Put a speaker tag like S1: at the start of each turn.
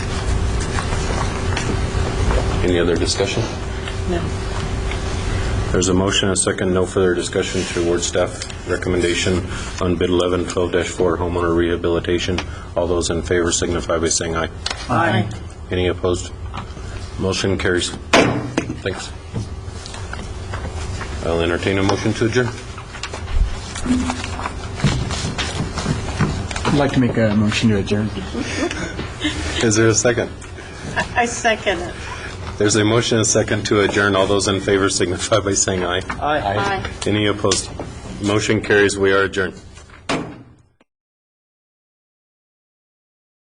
S1: Any other discussion?
S2: No.
S1: There's a motion, a second, no further discussion to award staff recommendation on bid 11, 12-4 homeowner rehabilitation. All those in favor signify by saying aye.
S2: Aye.
S1: Any opposed? Motion carries. Thanks. I'll entertain a motion to adjourn.
S3: I'd like to make a motion to adjourn.
S1: Is there a second?
S2: I second it.
S1: There's a motion, a second to adjourn. All those in favor signify by saying aye.
S2: Aye.
S1: Any opposed? Motion carries. We are adjourned.